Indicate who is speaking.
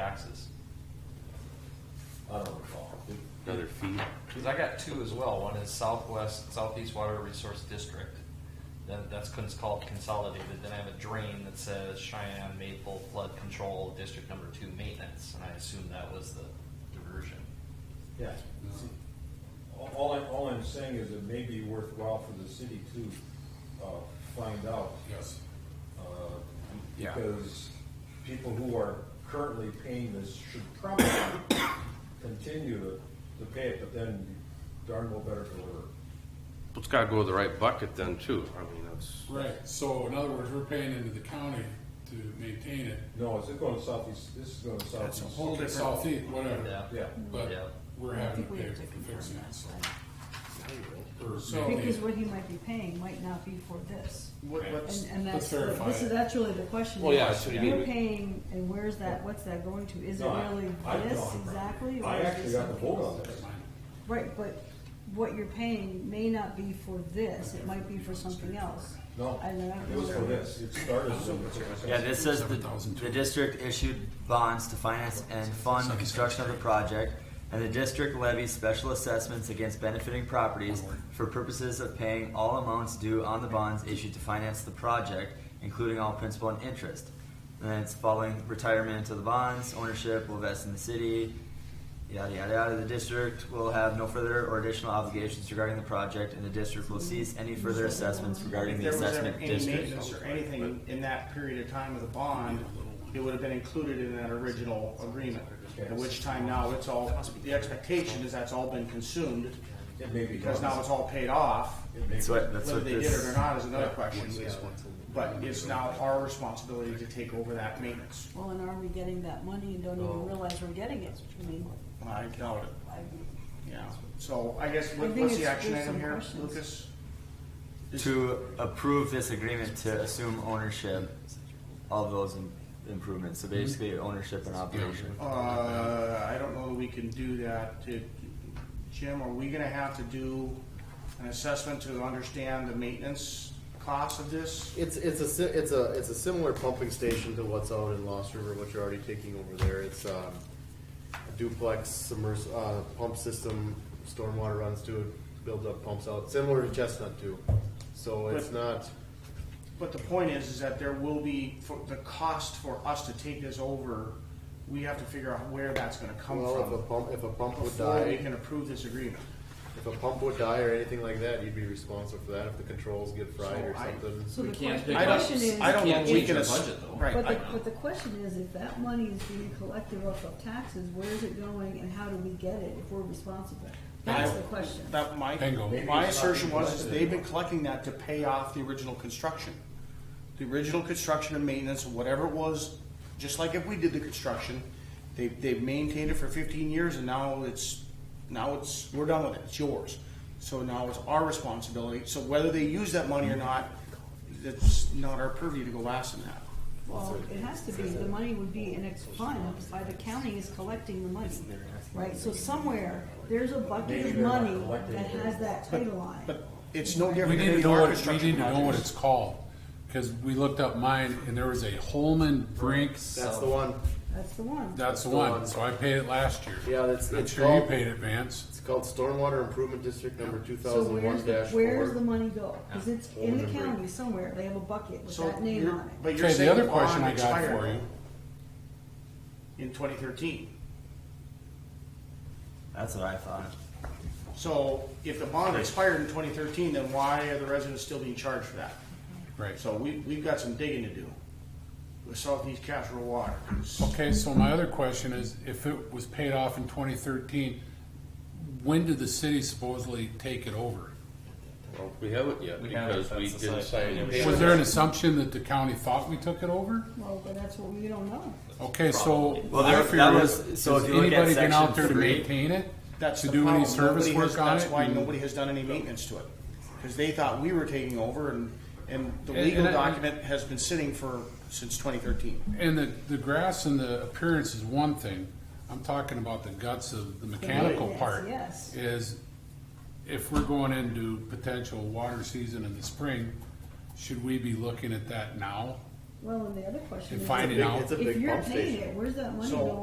Speaker 1: taxes?
Speaker 2: I don't recall.
Speaker 3: Another fee?
Speaker 1: Because I got two as well. One is Southwest, Southeast Water Resource District. Then that's cons- called consolidated. Then I have a drain that says Cheyenne Maple Flood Control District Number Two Maintenance, and I assume that was the diversion.
Speaker 2: Yeah. All- All, I- all I'm saying is it may be worthwhile for the city to, uh, find out.
Speaker 4: Yes.
Speaker 2: uh,
Speaker 3: Yeah.
Speaker 2: Because people who are currently paying this should probably continue to, to pay it, but then darn well better for
Speaker 3: It's gotta go to the right bucket then too, I mean, that's,
Speaker 4: Right, so in other words, we're paying into the county to maintain it.
Speaker 2: No, is it going to southeast, this is going to southeast.
Speaker 4: It's Southeast, whatever,
Speaker 1: Yeah.
Speaker 2: Yeah,
Speaker 4: but
Speaker 1: Yeah.
Speaker 4: we're
Speaker 5: I
Speaker 4: having
Speaker 5: think
Speaker 4: to
Speaker 5: we
Speaker 4: pay
Speaker 5: have
Speaker 4: for
Speaker 5: to
Speaker 4: fixing
Speaker 5: confirm
Speaker 4: it, so.
Speaker 5: that.
Speaker 4: or
Speaker 6: So-
Speaker 4: maintain
Speaker 5: Because
Speaker 4: it.
Speaker 5: what he might be paying might not be for this.
Speaker 6: What,
Speaker 4: Okay.
Speaker 6: what's,
Speaker 5: And, and
Speaker 4: Let's
Speaker 5: that's, the-
Speaker 4: verify
Speaker 5: this
Speaker 4: it.
Speaker 5: is, that's really the question.
Speaker 3: Well, yeah, that's what I mean.
Speaker 5: You're paying, and where's that, what's that going to? Is it
Speaker 2: No, I-
Speaker 5: really
Speaker 2: I- no,
Speaker 5: this
Speaker 2: I'm-
Speaker 5: exactly? or
Speaker 2: I
Speaker 5: is it
Speaker 2: actually got the
Speaker 5: something
Speaker 2: vote
Speaker 5: else?
Speaker 2: on this.
Speaker 5: Right, but what you're paying may not be for this, it might be for something else.
Speaker 2: No,
Speaker 5: I don't know.
Speaker 2: it was for this, it started.
Speaker 7: Yeah, this says the, the district issued bonds to finance and fund the construction of the project, and the district levies special assessments against benefiting properties for purposes of paying all amounts due on the bonds issued to finance the project, including all principal and interest. And then it's following retirement of the bonds, ownership will vest in the city, yada, yada, yada. The district will have no further or additional obligations regarding the project, and the district will cease any further assessments regarding
Speaker 6: if
Speaker 7: the
Speaker 6: there was ever
Speaker 7: assessment
Speaker 6: any
Speaker 7: district.
Speaker 6: maintenance or anything in that period of time of the bond, it would have been included in that original agreement. At which time now it's all, the expectation is that's all been consumed
Speaker 2: It may be.
Speaker 6: because
Speaker 2: done.
Speaker 6: now it's all paid off.
Speaker 2: It may
Speaker 7: That's
Speaker 2: be-
Speaker 7: what, that's
Speaker 6: Whether
Speaker 7: what
Speaker 6: they did
Speaker 7: this.
Speaker 6: it or not is another question, but it's now our responsibility to take over that maintenance.
Speaker 5: Well, and are we getting that money and don't even realize we're getting it? I mean,
Speaker 6: I doubt it,
Speaker 5: I,
Speaker 6: yeah. So I guess,
Speaker 5: I
Speaker 6: what-
Speaker 5: think
Speaker 6: what's the
Speaker 5: it's-
Speaker 6: action
Speaker 5: there's
Speaker 6: item
Speaker 5: some
Speaker 6: here,
Speaker 5: questions.
Speaker 6: Lucas?
Speaker 7: To approve this agreement to assume ownership of those im- improvements, so basically ownership and operation.
Speaker 6: Uh, I don't know that we can do that. Did- Jim, are we gonna have to do an assessment to understand the maintenance cost of this?
Speaker 8: It's it's a si- it's a it's a similar pumping station to what's out in Lost River, which you're already taking over there. It's um, a duplex submers uh, pump system. Stormwater runs to it, builds up pumps out, similar to Chestnut too. So it's
Speaker 6: But-
Speaker 8: not
Speaker 6: But the point is, is that there will be, for the cost for us to take this over, we have to figure out where that's gonna come
Speaker 8: well if a
Speaker 6: from
Speaker 8: pump if a pump would
Speaker 6: before we
Speaker 8: die
Speaker 6: can approve this agreement.
Speaker 8: if a pump would die or anything like that, you'd be responsible for that if the controls get fried
Speaker 6: So
Speaker 8: or
Speaker 6: I-
Speaker 8: something.
Speaker 5: so the
Speaker 4: We can't
Speaker 5: question, the
Speaker 4: pick up-
Speaker 5: question is.
Speaker 6: I don't know
Speaker 4: Can't
Speaker 6: if we
Speaker 4: change
Speaker 6: can.
Speaker 4: our
Speaker 6: ass-
Speaker 4: budget, though.
Speaker 6: Right.
Speaker 5: But
Speaker 6: I-
Speaker 5: the, but the question is, if that money is being collected off of taxes, where is it going and how do we get it if we're responsible? That's
Speaker 6: I-
Speaker 5: the question.
Speaker 6: That my,
Speaker 4: Bingo. Maybe
Speaker 6: my
Speaker 2: it's not
Speaker 6: assertion
Speaker 2: being
Speaker 6: was is
Speaker 2: collected
Speaker 6: they've been collecting that to pay off the original construction. The original construction and maintenance, whatever it was, just like if we did the construction, they, they've maintained it for fifteen years and now it's, now it's, we're done with it, it's yours. So now it's our responsibility, so whether they use that money or not, it's not our purview to go ask them that.
Speaker 5: Well, it has to be, the money would be in a fund by the county is collecting the money, right? So somewhere, there's a bucket of
Speaker 2: Maybe they're not
Speaker 5: money
Speaker 2: collecting
Speaker 5: that
Speaker 2: it.
Speaker 5: has that title on it.
Speaker 6: But it's no
Speaker 4: We
Speaker 6: different than
Speaker 4: need to
Speaker 6: any
Speaker 4: know
Speaker 6: our
Speaker 4: what, we
Speaker 6: construction
Speaker 4: need to know what
Speaker 6: projects.
Speaker 4: it's called, cause we looked up mine and there was a Holman Brink,
Speaker 8: That's the one.
Speaker 5: That's the one.
Speaker 4: that's the
Speaker 8: the
Speaker 4: one,
Speaker 8: one.
Speaker 4: so I paid it last year.
Speaker 8: Yeah, that's-
Speaker 4: And I'm
Speaker 8: it's
Speaker 4: sure you
Speaker 8: called-
Speaker 4: paid it, Vance.
Speaker 8: It's called Stormwater Improvement District Number two
Speaker 5: So
Speaker 8: thousand
Speaker 5: where's
Speaker 8: one
Speaker 5: the,
Speaker 8: dash four.
Speaker 5: where's the money go? Cause it's in the
Speaker 8: Hold it.
Speaker 5: county somewhere, they have a bucket with
Speaker 6: So
Speaker 5: that name
Speaker 6: you're-
Speaker 5: on it.
Speaker 6: But you're
Speaker 4: Okay,
Speaker 6: saying
Speaker 4: the other
Speaker 6: bond
Speaker 4: question I got
Speaker 6: expired
Speaker 4: for you,
Speaker 6: In twenty thirteen.
Speaker 7: That's what I thought.
Speaker 6: So if the bond expired in twenty thirteen, then why are the residents still being charged for that?
Speaker 4: right,
Speaker 6: So we, we've got some digging to do with Southeast Casserole Water.
Speaker 4: Okay, so my other question is, if it was paid off in twenty thirteen, when did the city supposedly take it over?
Speaker 3: well, we haven't yet,
Speaker 1: We haven't,
Speaker 3: because we
Speaker 1: that's
Speaker 3: didn't
Speaker 1: the
Speaker 3: sign.
Speaker 1: site.
Speaker 3: any
Speaker 4: Was there an
Speaker 3: papers.
Speaker 4: assumption that the county thought we took it over?
Speaker 5: Well, but that's what we don't know.
Speaker 4: Okay, so.
Speaker 7: Well,
Speaker 4: I
Speaker 7: there-
Speaker 4: figured,
Speaker 7: that was- so
Speaker 4: has
Speaker 7: if you look at
Speaker 4: Anybody been out
Speaker 7: section
Speaker 4: there to
Speaker 7: three,
Speaker 4: maintain it?
Speaker 6: That's
Speaker 4: To
Speaker 6: the
Speaker 4: do any
Speaker 6: problem.
Speaker 4: service
Speaker 6: Nobody has-
Speaker 4: work on it?
Speaker 6: That's why
Speaker 4: And-
Speaker 6: nobody has done any maintenance to it, because they thought we were taking over and, and the
Speaker 4: And-
Speaker 6: legal
Speaker 4: and I-
Speaker 6: document has been sitting for, since twenty thirteen.
Speaker 4: And the, the grass and the appearance is one thing. I'm talking about the guts of the mechanical
Speaker 5: Yes,
Speaker 4: part.
Speaker 5: yes.
Speaker 4: Is if we're going into potential water season in the spring, should we be looking at that now?
Speaker 5: Well, and the other question
Speaker 4: And
Speaker 5: is,
Speaker 4: finding out.
Speaker 8: It's a
Speaker 5: if
Speaker 8: big
Speaker 5: you're
Speaker 8: pump station.
Speaker 5: paying it, where's that money
Speaker 6: So-
Speaker 5: going?